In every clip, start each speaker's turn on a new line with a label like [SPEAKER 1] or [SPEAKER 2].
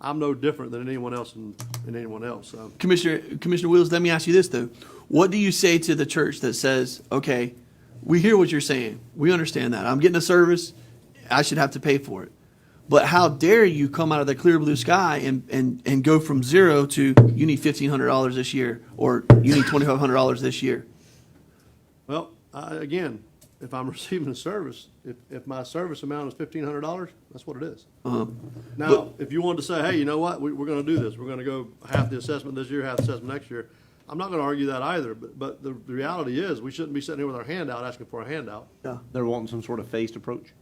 [SPEAKER 1] I'm no different than anyone else and, than anyone else, so.
[SPEAKER 2] Commissioner Commissioner Wills, let me ask you this though. What do you say to the church that says, "Okay, we hear what you're saying. We understand that. I'm getting a service. I should have to pay for it." But how dare you come out of the clear blue sky and, and, and go from zero to you need fifteen hundred dollars this year or you need twenty five hundred dollars this year?
[SPEAKER 1] Well, I, again, if I'm receiving a service, if, if my service amount is fifteen hundred dollars, that's what it is.
[SPEAKER 2] Um,
[SPEAKER 1] Now, if you wanted to say, hey, you know what, we, we're gonna do this, we're gonna go half the assessment this year, half the assessment next year, I'm not gonna argue that either, but, but the, the reality is, we shouldn't be sitting here with our hand out asking for a handout.
[SPEAKER 3] They're wanting some sort of phased approach?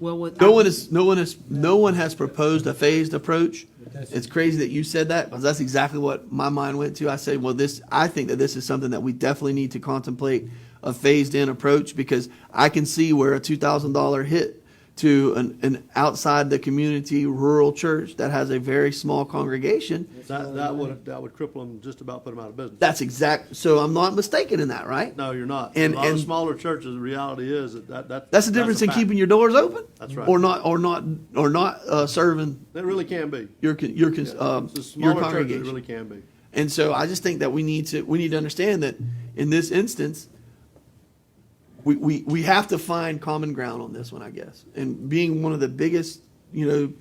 [SPEAKER 4] Well, what.
[SPEAKER 2] No one is no one is no one has proposed a phased approach. It's crazy that you said that because that's exactly what my mind went to. I said, well, this I think that this is something that we definitely need to contemplate a phased in approach because I can see where a two thousand dollar hit to an, an outside the community rural church that has a very small congregation.
[SPEAKER 1] That, that would, that would cripple them, just about put them out of business.
[SPEAKER 2] That's exact. So I'm not mistaken in that, right?
[SPEAKER 1] No, you're not.
[SPEAKER 2] And-
[SPEAKER 1] A lot of
[SPEAKER 2] and-
[SPEAKER 1] smaller churches, the reality is that, that, that.
[SPEAKER 2] That's the difference in
[SPEAKER 1] fact.
[SPEAKER 2] keeping your doors open,
[SPEAKER 1] That's right.
[SPEAKER 2] or not, or not, or not uh, serving
[SPEAKER 1] It really can be.
[SPEAKER 2] your con- your con-
[SPEAKER 1] Yeah.
[SPEAKER 2] um,
[SPEAKER 1] The
[SPEAKER 2] your
[SPEAKER 1] smaller churches,
[SPEAKER 2] congregation.
[SPEAKER 1] it really can be.
[SPEAKER 2] And so I just think that we need to we need to understand that in this instance, we, we, we have to find common ground on this one, I guess. And being one of the biggest, you know,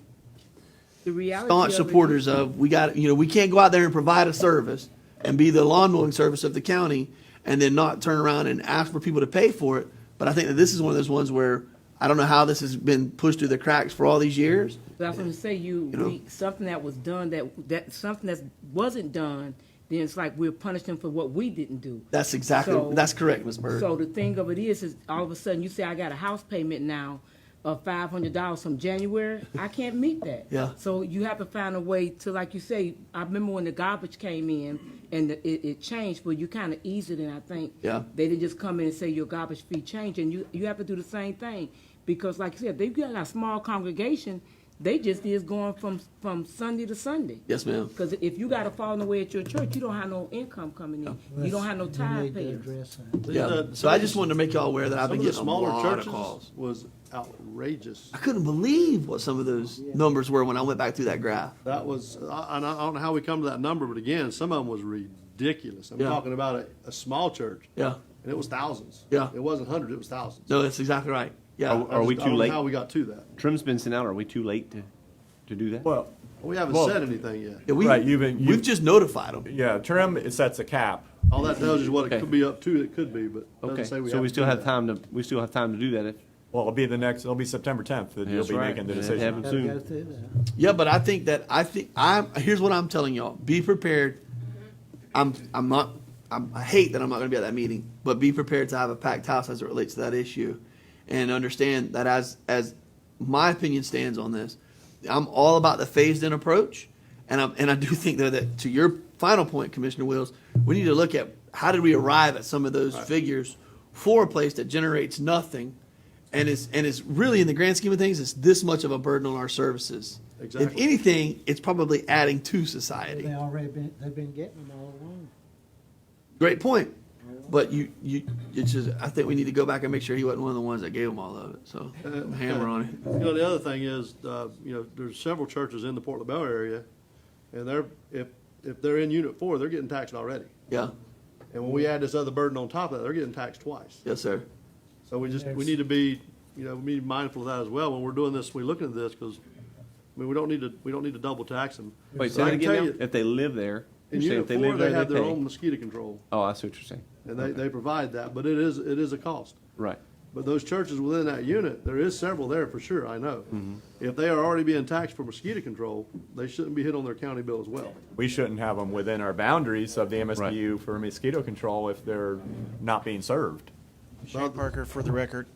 [SPEAKER 4] The reality.
[SPEAKER 2] staunch
[SPEAKER 4] of it-
[SPEAKER 2] supporters of we got you know, we can't go out there and provide a service and be the lawn mowing service of the county and then not turn around and ask for people to pay for it. But I think that this is one of those ones where I don't know how this has been pushed through the cracks for all these years.
[SPEAKER 4] But I was gonna say, you,
[SPEAKER 2] You know?
[SPEAKER 4] we, something that was done, that, that, something that wasn't done, then it's like we're punishing for what we didn't do.
[SPEAKER 2] That's exactly
[SPEAKER 4] So-
[SPEAKER 2] that's correct, Ms. Bird.
[SPEAKER 4] So the thing of it is, is all of a sudden you say, I got a house payment now of five hundred dollars from January, I can't meet that.
[SPEAKER 2] Yeah.
[SPEAKER 4] So you have to find a way to, like you say, I remember when the garbage came in and the- it, it changed, but you kind of eased it, and I think.
[SPEAKER 2] Yeah.
[SPEAKER 4] They didn't just come in and say your garbage fee changed, and you, you have to do the same thing, because like you said, they've got a small congregation, they just is going from, from Sunday to Sunday.
[SPEAKER 2] yes, ma'am.
[SPEAKER 4] Because if you got to fall away at your church, you don't have no income coming in, you don't have no
[SPEAKER 5] They
[SPEAKER 4] time
[SPEAKER 5] need to
[SPEAKER 4] payers.
[SPEAKER 5] address that.
[SPEAKER 1] These,
[SPEAKER 2] Yeah.
[SPEAKER 1] uh,
[SPEAKER 2] So I just wanted to make y'all aware that I've
[SPEAKER 1] Some
[SPEAKER 2] been
[SPEAKER 1] of the
[SPEAKER 2] getting a
[SPEAKER 1] smaller
[SPEAKER 2] lot of
[SPEAKER 1] churches
[SPEAKER 2] calls.
[SPEAKER 1] was outrageous.
[SPEAKER 2] I couldn't believe what some of those numbers were when I went back through that graph.
[SPEAKER 1] That was, I, I don't know how we come to that number, but again, some of them was ridiculous. I'm
[SPEAKER 2] Yeah.
[SPEAKER 1] talking about a, a small church.
[SPEAKER 2] Yeah.
[SPEAKER 1] And it was thousands.
[SPEAKER 2] Yeah.
[SPEAKER 1] It wasn't hundreds, it was thousands.
[SPEAKER 2] No, that's exactly right. Yeah.
[SPEAKER 3] Oh, Are
[SPEAKER 1] I
[SPEAKER 3] we
[SPEAKER 1] just- I
[SPEAKER 3] too
[SPEAKER 1] don't know
[SPEAKER 3] late?
[SPEAKER 1] How we got to that.
[SPEAKER 3] Trim's been sent out, are we too late to, to do that?
[SPEAKER 6] Well,
[SPEAKER 1] We haven't
[SPEAKER 6] Well-
[SPEAKER 1] said anything yet.
[SPEAKER 2] Yeah, we,
[SPEAKER 6] Right, you've been-
[SPEAKER 2] we've
[SPEAKER 6] you've-
[SPEAKER 2] just notified them.
[SPEAKER 6] yeah, trim it sets a cap.
[SPEAKER 1] All that tells you is what it could be up to, it could be, but
[SPEAKER 3] Okay,
[SPEAKER 1] doesn't say we have.
[SPEAKER 3] so we
[SPEAKER 1] to
[SPEAKER 3] still
[SPEAKER 1] do
[SPEAKER 3] have
[SPEAKER 1] that.
[SPEAKER 3] time to, we still have time to do that if.
[SPEAKER 6] Well, it'll be the next, it'll be September tenth that you'll
[SPEAKER 3] That's
[SPEAKER 6] be
[SPEAKER 3] right,
[SPEAKER 6] making the
[SPEAKER 3] and it
[SPEAKER 6] decision.
[SPEAKER 3] happens.
[SPEAKER 5] Gotta
[SPEAKER 3] Soon.
[SPEAKER 5] go through that.
[SPEAKER 2] Yeah, but I think that I think I'm. Here's what I'm telling y'all: be prepared. I'm. I'm not. I'm, I hate that I'm not going to be at that meeting, but be prepared to have a packed house as it relates to that issue, and understand that as as my opinion stands on this, I'm all about the phased-in approach, and I'm and I do think though that to your final point, Commissioner Wills, we need to look at how did we arrive at some of those figures for a place that generates nothing. And it's, and it's really, in the grand scheme of things, it's this much of a burden on our services. If
[SPEAKER 1] Exactly.
[SPEAKER 2] anything, it's probably adding to society.
[SPEAKER 5] They already been, they've been getting them all along.
[SPEAKER 2] Great point. But you, you, it's just, I think we need to go back and make sure he wasn't one of the ones that gave them all of it. So
[SPEAKER 1] Uh,
[SPEAKER 2] hammer on it.
[SPEAKER 1] You know, the other thing is, uh, you know, there's several churches in the Port LaBelle area, and they're, if, if they're in Unit Four, they're getting taxed already.
[SPEAKER 2] Yeah.
[SPEAKER 1] And when we add this other burden on top of that, they're getting taxed twice.
[SPEAKER 2] Yes, sir.
[SPEAKER 1] So we just, we
[SPEAKER 5] There's-
[SPEAKER 1] need to be, you know, we need to be mindful of that as well when we're doing this, we're looking at this, because, I mean, we don't need to, we don't need to double tax them.
[SPEAKER 3] Wait,
[SPEAKER 1] So
[SPEAKER 3] say
[SPEAKER 1] I
[SPEAKER 3] that
[SPEAKER 1] can tell
[SPEAKER 3] again now?
[SPEAKER 1] you,
[SPEAKER 3] If they live there,
[SPEAKER 1] In
[SPEAKER 3] you're saying
[SPEAKER 1] Unit
[SPEAKER 3] if they
[SPEAKER 1] Four,
[SPEAKER 3] live
[SPEAKER 1] they
[SPEAKER 3] there,
[SPEAKER 1] have
[SPEAKER 3] they
[SPEAKER 1] their own
[SPEAKER 3] pay?
[SPEAKER 1] mosquito control,
[SPEAKER 3] Oh, I see what you're saying.
[SPEAKER 1] and they, they provide that, but it is, it is a cost.
[SPEAKER 3] Right.
[SPEAKER 1] But those churches within that unit, there is several there for sure, I know. If they are already being taxed for mosquito control, they shouldn't be hit on their county bill as well.
[SPEAKER 6] We shouldn't have them within our boundaries of the MSBU for mosquito control if they're not being served.
[SPEAKER 7] Shane Parker, for the record,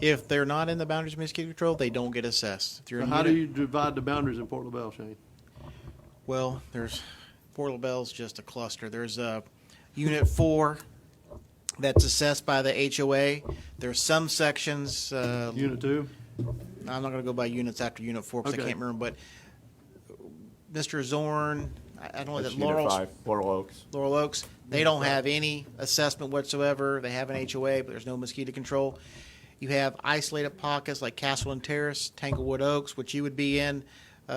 [SPEAKER 7] if they're not in the boundaries of mosquito control, they don't get assessed. If you're
[SPEAKER 1] Now,
[SPEAKER 7] in
[SPEAKER 1] how do
[SPEAKER 7] unit-
[SPEAKER 1] you divide the boundaries in Port LaBelle, Shane?
[SPEAKER 7] Well, there's Port LaBelle's just a cluster. There's a unit four that's assessed by the HOA. There's some sections. Uh,
[SPEAKER 1] Unit two?
[SPEAKER 7] I'm not going to go by units after unit four because
[SPEAKER 1] Okay.
[SPEAKER 7] I can't remember. But Mr. Zorn, I, I don't know
[SPEAKER 6] That's
[SPEAKER 7] that
[SPEAKER 6] Unit
[SPEAKER 7] Laurel's
[SPEAKER 6] five, Laurel Oaks.
[SPEAKER 7] Laurel Oaks. They don't have any assessment whatsoever. They have an HOA, but there's no mosquito control. You have isolated pockets like Castle and Terrace, Tanglewood Oaks, which you would be in.